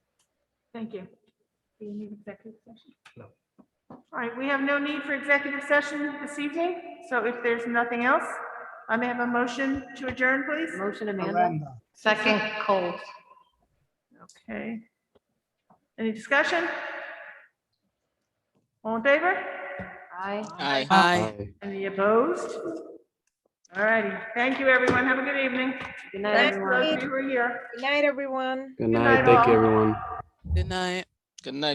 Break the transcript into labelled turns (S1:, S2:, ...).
S1: Thank you. Do you need executive session?
S2: No.
S1: All right, we have no need for executive session this evening, so if there's nothing else, I may have a motion to adjourn, please.
S3: Motion Amanda,
S4: Aranda,
S3: second Coles.
S1: Okay. Any discussion? All in favor?
S3: Aye.
S5: Aye.
S6: Aye.
S1: Any opposed? All righty, thank you, everyone. Have a good evening.
S3: Good night,
S1: Thanks,
S3: everyone.
S1: those of you who are here.
S7: Good night, everyone.
S4: Good
S1: night,
S4: night, thank you,
S1: all.
S4: everyone.
S6: Good night.
S5: Good night.